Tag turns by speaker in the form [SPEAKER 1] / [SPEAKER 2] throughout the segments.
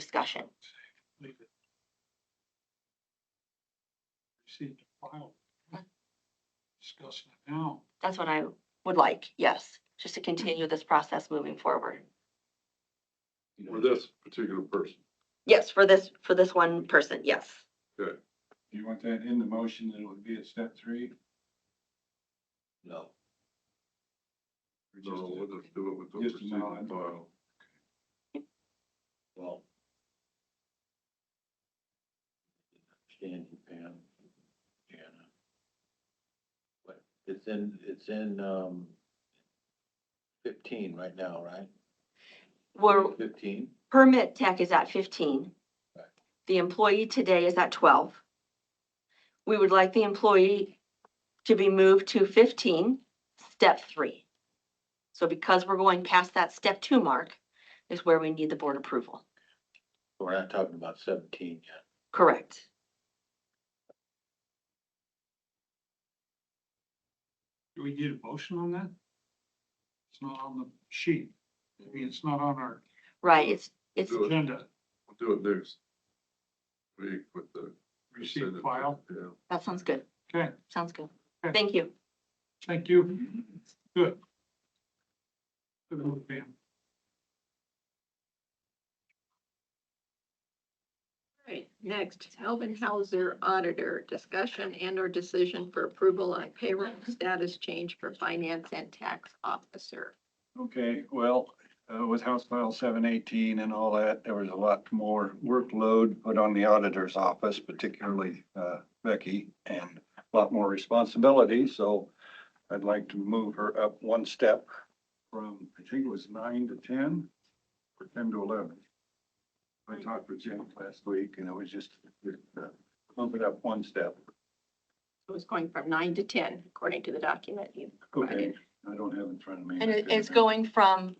[SPEAKER 1] discussion.
[SPEAKER 2] completed. Received a file. Discussing it now.
[SPEAKER 1] That's what I would like, yes, just to continue this process moving forward.
[SPEAKER 3] For this particular person.
[SPEAKER 1] Yes, for this, for this one person, yes.
[SPEAKER 4] Do you want that in the motion that it would be at step three?
[SPEAKER 3] No.
[SPEAKER 4] or just
[SPEAKER 3] No, we'll
[SPEAKER 4] a-
[SPEAKER 3] just do it with the
[SPEAKER 4] Just a
[SPEAKER 3] receiving
[SPEAKER 4] nod.
[SPEAKER 3] file. Well.
[SPEAKER 5] Stan, Pam, Jana. But it's in, it's in, um, fifteen right now, right?
[SPEAKER 1] We're,
[SPEAKER 5] Fifteen?
[SPEAKER 1] permit tech is at fifteen.
[SPEAKER 5] Right.
[SPEAKER 1] The employee today is at twelve. We would like the employee to be moved to fifteen, step three. So because we're going past that step two mark is where we need the board approval.
[SPEAKER 5] We're not talking about seventeen yet.
[SPEAKER 1] Correct.
[SPEAKER 2] Do we need a motion on that? It's not on the sheet. I mean, it's not on our
[SPEAKER 1] Right, it's, it's,
[SPEAKER 3] Do it,
[SPEAKER 2] agenda.
[SPEAKER 3] we'll do it next week with the.
[SPEAKER 2] Received
[SPEAKER 3] consent
[SPEAKER 2] file.
[SPEAKER 3] agenda. Yeah.
[SPEAKER 1] that sounds good.
[SPEAKER 2] Okay,
[SPEAKER 1] Sounds good.
[SPEAKER 2] Okay.
[SPEAKER 1] Thank you.
[SPEAKER 2] thank you. Good. Good move, Pam.
[SPEAKER 6] Right, next, Hauser Auditor, discussion and or decision for approval on payroll status change for finance and tax officer.
[SPEAKER 4] Okay, well, uh, with House File seven eighteen and all that, there was a lot more workload put on the auditor's office, particularly, uh, Becky, and a lot more responsibility, so I'd like to move her up one step from, I think it was nine to ten, or ten to eleven. I talked with Jim last week, and it was just, uh, move it up one step.
[SPEAKER 6] It was going from nine to ten, according to the document you
[SPEAKER 4] Okay,
[SPEAKER 6] provided.
[SPEAKER 4] I don't have in front of me.
[SPEAKER 1] And it- it's going from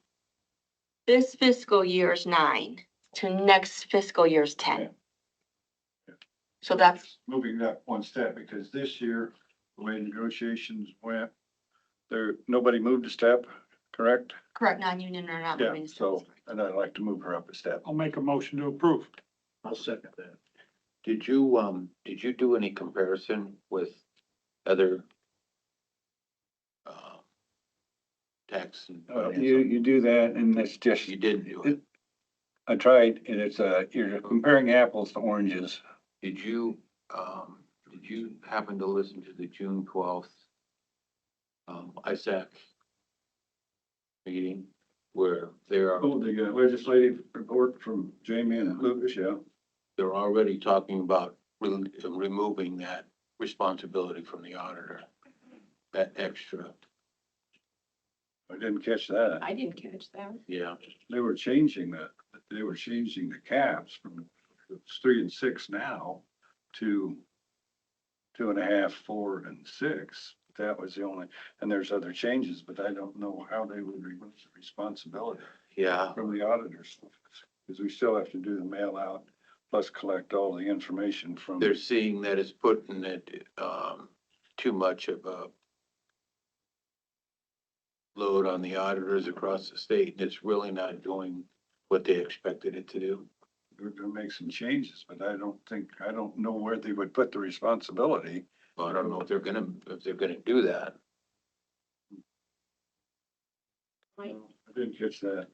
[SPEAKER 1] this fiscal year's nine to next fiscal year's
[SPEAKER 4] Yeah.
[SPEAKER 1] ten. So that's
[SPEAKER 4] Moving that one step, because this year, the way negotiations went, there, nobody moved a step, correct?
[SPEAKER 1] correct, non-union or not
[SPEAKER 4] Yeah,
[SPEAKER 1] moving
[SPEAKER 4] so,
[SPEAKER 1] stores.
[SPEAKER 4] and I'd like to move her up a step.
[SPEAKER 2] I'll make a motion to approve.
[SPEAKER 5] I'll second that. Did you, um, did you do any comparison with other, uh, tax? and
[SPEAKER 4] Uh, You,
[SPEAKER 5] finance?
[SPEAKER 4] you do that, and it's just,
[SPEAKER 5] You did do it.
[SPEAKER 4] I tried, and it's, uh, you're comparing apples to oranges.
[SPEAKER 5] Did you, um, did you happen to listen to the June twelfth, um, ISAC meeting where they're,
[SPEAKER 4] Oh, the uh, legislative report from Jamie and Lucas, yeah.
[SPEAKER 5] they're already talking about re- removing that responsibility from the auditor? That extra,
[SPEAKER 4] I didn't catch that.
[SPEAKER 6] I didn't catch that.
[SPEAKER 5] yeah,
[SPEAKER 4] They were changing the, they were changing the caps from it's three and six now to two and a half, four and six. That was the only, and there's other changes, but I don't know how they would remove the responsibility
[SPEAKER 5] yeah,
[SPEAKER 4] from the auditors. Because we still have to do the mail out, plus collect all the information from.
[SPEAKER 5] they're seeing that it's putting it, um, too much of a load on the auditors across the state, and it's really not doing what they expected it to do.
[SPEAKER 4] They're gonna make some changes, but I don't think, I don't know where they would put the responsibility.
[SPEAKER 5] Well, I don't know if they're gonna, if they're gonna do that.
[SPEAKER 6] I,
[SPEAKER 4] I didn't catch that.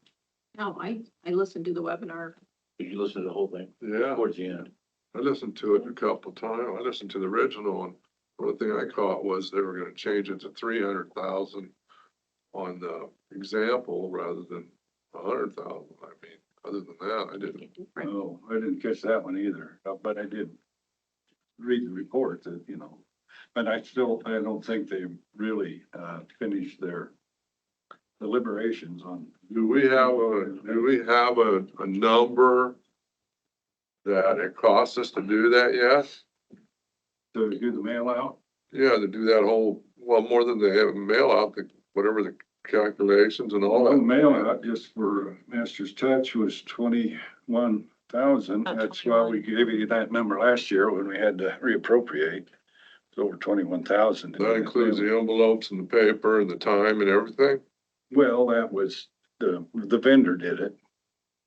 [SPEAKER 6] no, I, I listened to the webinar.
[SPEAKER 5] Did you listen to the whole thing
[SPEAKER 3] Yeah,
[SPEAKER 5] towards the end?
[SPEAKER 3] I listened to it a couple times. I listened to the original and one thing I caught was they were gonna change it to three hundred thousand on the example rather than a hundred thousand. I mean, other than that, I didn't.
[SPEAKER 6] Different.
[SPEAKER 4] Oh, I didn't catch that one either, uh, but I did read the report that, you know, but I still, I don't think they really, uh, finished their deliberations on,
[SPEAKER 3] Do we have a, do we have a, a number that it costs us to do that, yes?
[SPEAKER 4] to do the mail out.
[SPEAKER 3] Yeah, to do that whole, well, more than they have mail out, the, whatever the calculations and all
[SPEAKER 4] The
[SPEAKER 3] that.
[SPEAKER 4] Mail out just for Master's Touch was twenty-one thousand.
[SPEAKER 1] Oh,
[SPEAKER 4] That's why we gave you that number last year when we had to reappropriate. It's over twenty-one thousand.
[SPEAKER 3] That includes the envelopes and the paper and the time and everything?
[SPEAKER 4] Well, that was, the, the vendor did it.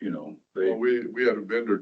[SPEAKER 4] you know, they.
[SPEAKER 3] Well, we, we had a vendor